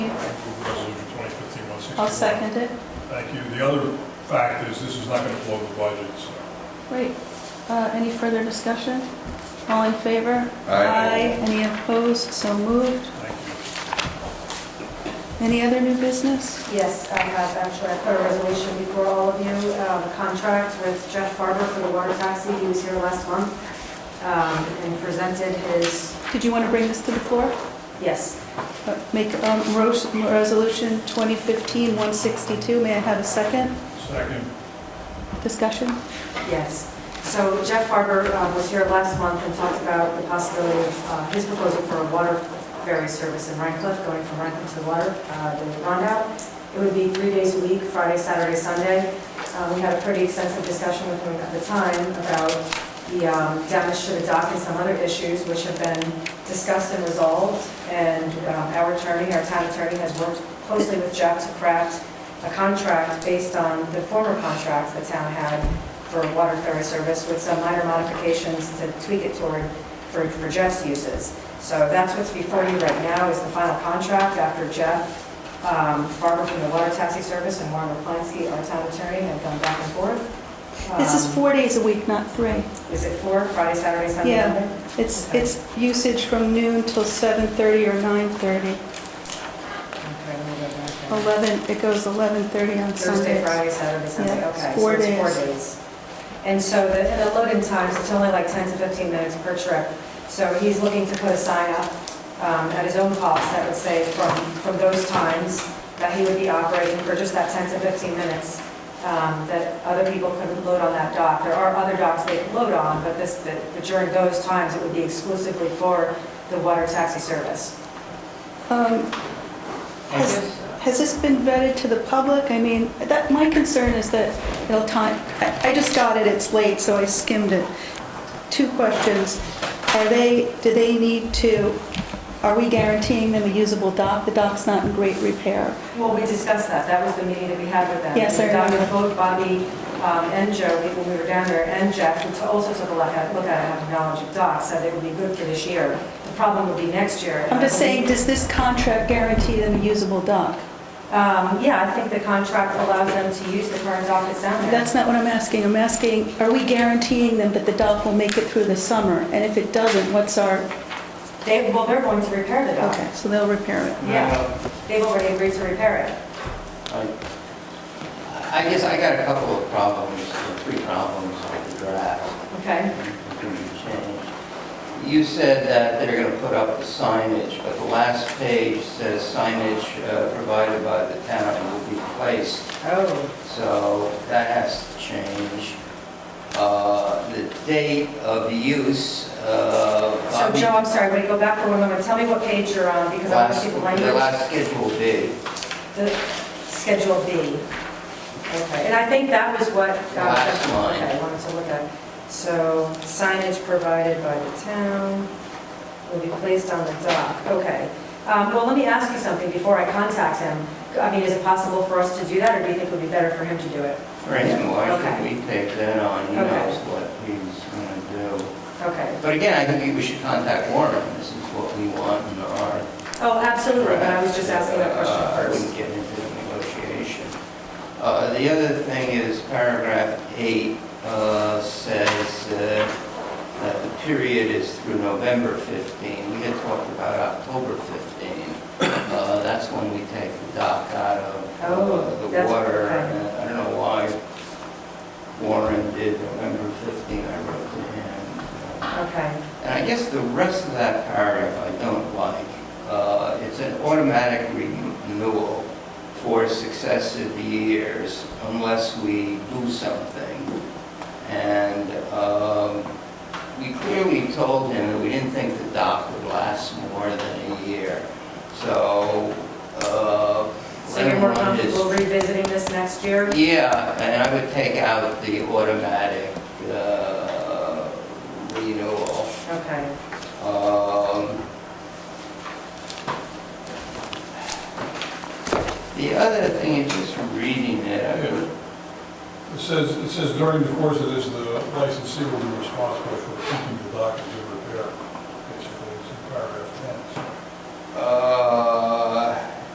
I'll second it. Thank you. The other fact is, this is not going to blow the budget, so. Great. Uh, Any further discussion? All in favor? Aye. Any opposed? So moved. Thank you. Any other new business? Yes, I have, actually, I put a resolution before all of you, uh, the contract with Jeff Farber for the water taxi, he was here last month, um, and presented his, Did you want to bring this to the floor? yes, Uh, Make um, ros- Resolution 2015-162. May I have a second? Second, Discussion? yes. So Jeff Farber uh, was here last month and talked about the possibility of uh, his proposal for a water ferry service in Rhine Cliff, going from Rhine Cliff to the water, uh, the Rondout. It would be three days a week, Friday, Saturday, Sunday. Uh, We had a pretty extensive discussion with him at the time about the um, damage to the dock and some other issues which have been discussed and resolved. And um, our attorney, our town attorney, has worked closely with Jeff to craft a contract based on the former contract the town had for water ferry service with some minor modifications to tweak it toward, for for Jeff's uses. So that's what's before you right now is the final contract after Jeff um, Farmer from the Water Taxi Service and Warren Raplansky, our town attorney, have gone back and forth. This is Um, four days a week, not three. is it four, Friday, Saturday, Sunday? Yeah. Monday? It's, Okay. it's usage from noon till 7:30 or 9:30. Okay, let me go back there. 11, it goes 11:30 on Thursday, Sundays. Friday, Saturday, Sunday, Yeah, okay. it's so four it's days. Four days. And so the, and the load-in times, it's only like 10 to 15 minutes per trip. So he's looking to put a sign up um, at his own cost that would say from, from those times that he would be operating for just that 10 to 15 minutes, um, that other people couldn't load on that dock. There are other docks they could load on, but this, that during those times, it would be exclusively for the water taxi service. Um, Has has this been vetted to the public? I mean, that, my concern is that it'll time, I I just got it, it's late, so I skimmed it. Two questions. Are they, do they need to, are we guaranteeing them a usable dock? The dock's not in great repair. Well, we discussed that, that was the meeting that we had with them. Yes, I remember. Both Bobby um, and Joe, we- when we were down there, and Jeff, who also took a look at, look at it, have knowledge of docs, said they would be good for this year. The problem would be next year. I'm just saying, does this contract guarantee them a usable dock? Um, Yeah, I think the contract allows them to use the current dock that's down there. That's not what I'm asking. I'm asking, are we guaranteeing them that the dock will make it through the summer? And if it doesn't, what's our, They, well, they're going to repair the dock. okay, so they'll repair it. Yeah, they've already agreed to repair it. I guess I got a couple of problems, or three problems with the draft. Okay, You said that they're going to put up the signage, but the last page says signage uh, provided by the town will be placed. oh, So that has to change. Uh, The date of use, uh, so Bobby... Joe, I'm sorry, wait, go back for one moment, tell me what page you're on, because I want to last- see the The language. last schedule date. The Schedule B. Okay, and I think that was what. uh, Last line. Okay, I wanted to look at. So signage provided by the town will be placed on the dock. Okay. Um, Well, let me ask you something before I contact him. I mean, is it possible for us to do that, or do you think it would be better for him to do it? Right, why should Okay. we take that on? He Okay. knows what he's going to do. Okay. But again, I think we should contact Warren, this is what we want in our... Oh, absolutely, but I was just asking that question Uh, I wouldn't first. get into the negotiation. Uh, The other thing is paragraph eight uh, says uh, that the period is through November 15. We had talked about October 15. Uh, That's when we take the dock out of Oh, uh, the that's- water. okay. And I don't know why Warren did November 15, I wrote to him. uh, Okay. and I guess the rest of that paragraph I don't like. Uh, It's an automatic renewal for successive years unless we do something. And um, we clearly told him that we didn't think the dock would last more than a year. So, uh... So you're more everyone is- comfortable revisiting this next year? yeah, and I would take out the automatic uh, renewal. Okay. Um, The other thing is just reading it, I would- it says, it says during the course of this, the licensee will be responsible for keeping the dock in good repair. Basically, it's in paragraph ten. so. uh,